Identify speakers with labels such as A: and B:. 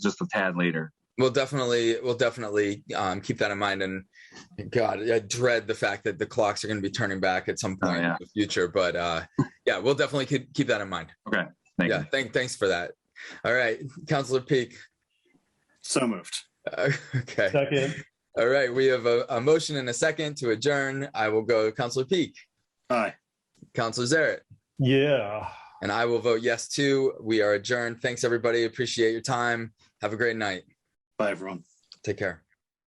A: just a tad later.
B: We'll definitely, we'll definitely um, keep that in mind. And God, I dread the fact that the clocks are going to be turning back at some point
A: Oh, yeah.
B: in the future. But uh, yeah, we'll definitely keep, keep that in mind.
A: Thank
B: yeah,
A: you.
B: thank, thanks for that. All right, Counselor Peak.
C: So moved.
B: Uh, okay.
D: Second.
B: All right, we have a, a motion and a second to adjourn. I will go Counselor Peak,
C: Aye.
B: Counselor Zaret,
D: Yeah.
B: and I will vote yes too. We are adjourned. Thanks, everybody. Appreciate your time. Have a great night.
C: Bye, everyone.
B: Take care.